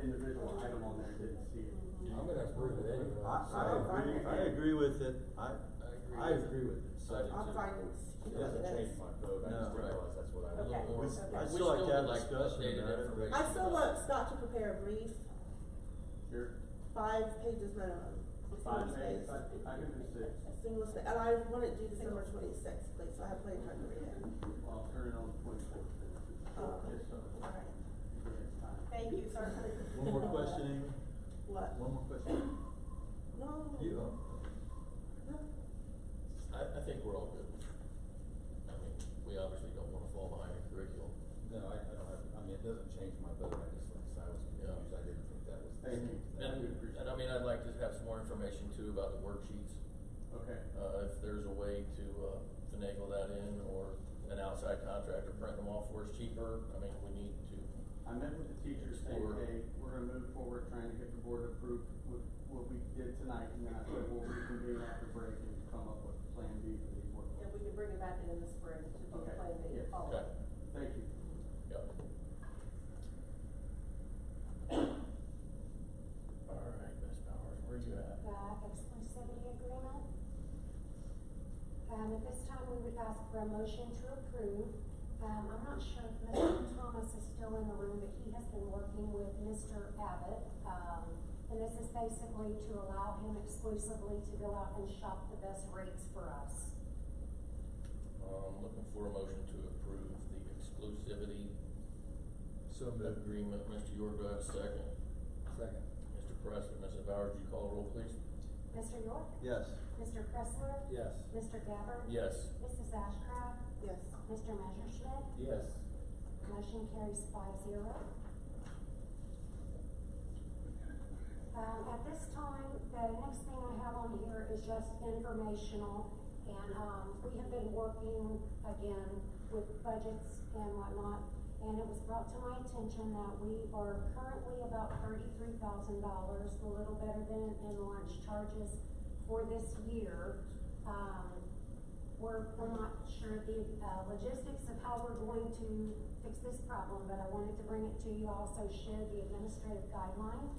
individual item on there didn't see it. I'm gonna approve it anyway. I, so- I agree, I agree with it, I, I agree with it, so. I'm fine with It keeping doesn't this. change my vote, I just No. realized that's what I Okay. was. We- Okay. I'd We still like to still have a would like discussion updated about it, but- information. I still want Scott to prepare a brief, Here, five pages minimum. five single days, space. I, I can do six, Single space, and I want it due December twenty-sixth, please, so I have plenty of time to read it. Um, I'll turn it on the twenty-fourth. Yes, sir. All right. Give it time. Thank you, sir. One more question, Amy, What? one more question, No. you, um, No. I, I think we're all good. I mean, we obviously don't wanna fall behind in curriculum. No, I, I don't have, I mean, it doesn't change my vote, I just, like, I said, I was confused, I didn't think that was. the Thank you. same thing. I do And, appreciate and I mean, I'd like to have some more information too about the worksheets. Okay. Uh, if there's a way to, uh, finagle that in or an outside contractor print them off where it's cheaper, I mean, we need to. I met with the teachers saying, Explore. hey, we're gonna move forward trying to get the board approved with what we did tonight, and then I said, well, we can do after break and come up with plan B for these work. And we can bring it back in the spring to be Okay, planned yes. and Okay, followed. Thank you. yep. All right, Ms. Powers, where you at? the exclusivity agreement. Um, at this time, we would ask for a motion to approve. Um, I'm not sure if Mr. Thomas is still in the room, but he has been working with Mr. Abbott. Um, and this is basically to allow him exclusively to go out and shop the best rates for us. Um, looking for a motion to approve the exclusivity so moved, agreement. Mr. York, do I have a second? second, Mr. Preston, Mrs. Bowers, would you call the roll, please? Mr. York? yes, Mr. Pressler? yes, Mr. Gabbard? Yes. Mrs. Ashcraft? Yes. Mr. Messerschmidt? yes, Motion carries five zero. Um, at this time, the next thing I have on here is just informational, and, um, we have been working again with budgets and whatnot, and it was brought to my attention that we are currently about thirty-three thousand dollars, a little better than in lunch charges for this year. Um, we're, we're not sure of the, uh, logistics of how we're going to fix this problem, but I wanted to bring it to you, also share the administrative guideline.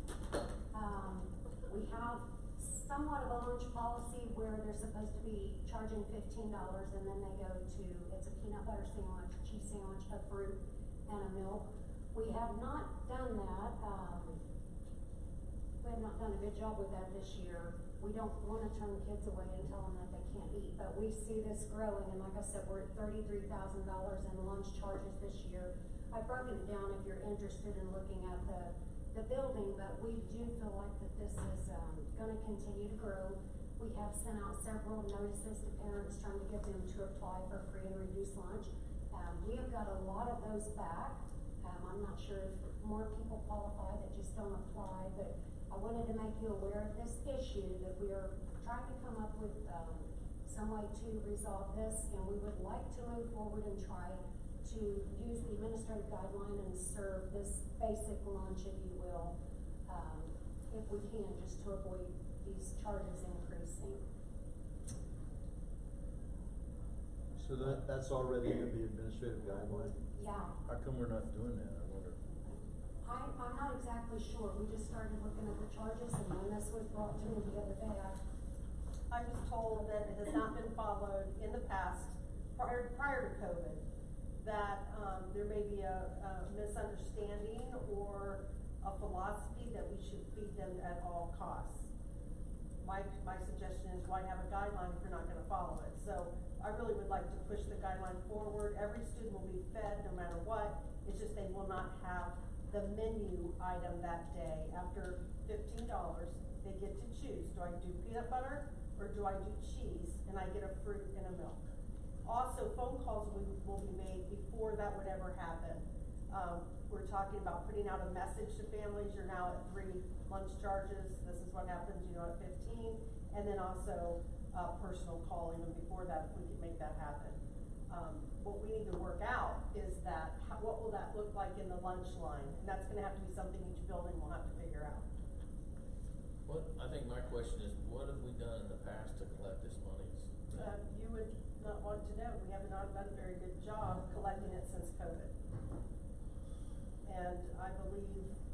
Um, we have somewhat of a lunch policy where they're supposed to be charging fifteen dollars and then they go to, it's a peanut butter sandwich, cheese sandwich, a fruit, and a milk. We have not done that, um, we have not done a good job with that this year. We don't wanna turn kids away and tell them that they can't eat, but we see this growing, and like I said, we're at thirty-three thousand dollars in lunch charges this year. I've broken it down if you're interested in looking at the, the building, but we do feel like that this is, um, gonna continue to grow. We have sent out several notices to parents trying to get them to apply for free and reduced lunch. Um, we have got a lot of those back, um, I'm not sure if more people qualify that just don't apply, but I wanted to make you aware of this issue, that we are trying to come up with, um, some way to resolve this, and we would like to move forward and try to use the administrative guideline and serve this basic lunch, if you will, um, if we can, just to avoid these charges increasing. so that, that's already in the administrative guideline, Yeah, how come we're not doing that, I wonder? I, I'm not exactly sure, we just started looking at the charges, and when this was brought to me the other day, I I was told that it has not been followed in the past, prior, prior to COVID, that, um, there may be a, a misunderstanding or a philosophy that we should feed them at all costs. My, my suggestion is why have a guideline if you're not gonna follow it? So I really would like to push the guideline forward. Every student will be fed no matter what. It's just they will not have the menu item that day. After fifteen dollars, they get to choose, do I do peanut butter or do I do cheese? And I get a fruit and a milk. Also, phone calls will, will be made before that would ever happen. Um, we're talking about putting out a message to families, you're now at three lunch charges, this is what happens, you know, at fifteen. And then also, uh, personal call even before that, if we could make that happen. Um, what we need to work out is that, how, what will that look like in the lunch line? And that's gonna have to be something each building will have to figure out. What, I think my question is, what have we done in the past to collect this money? Uh, you would not want to know, we have not done a very good job collecting it since COVID. And I believe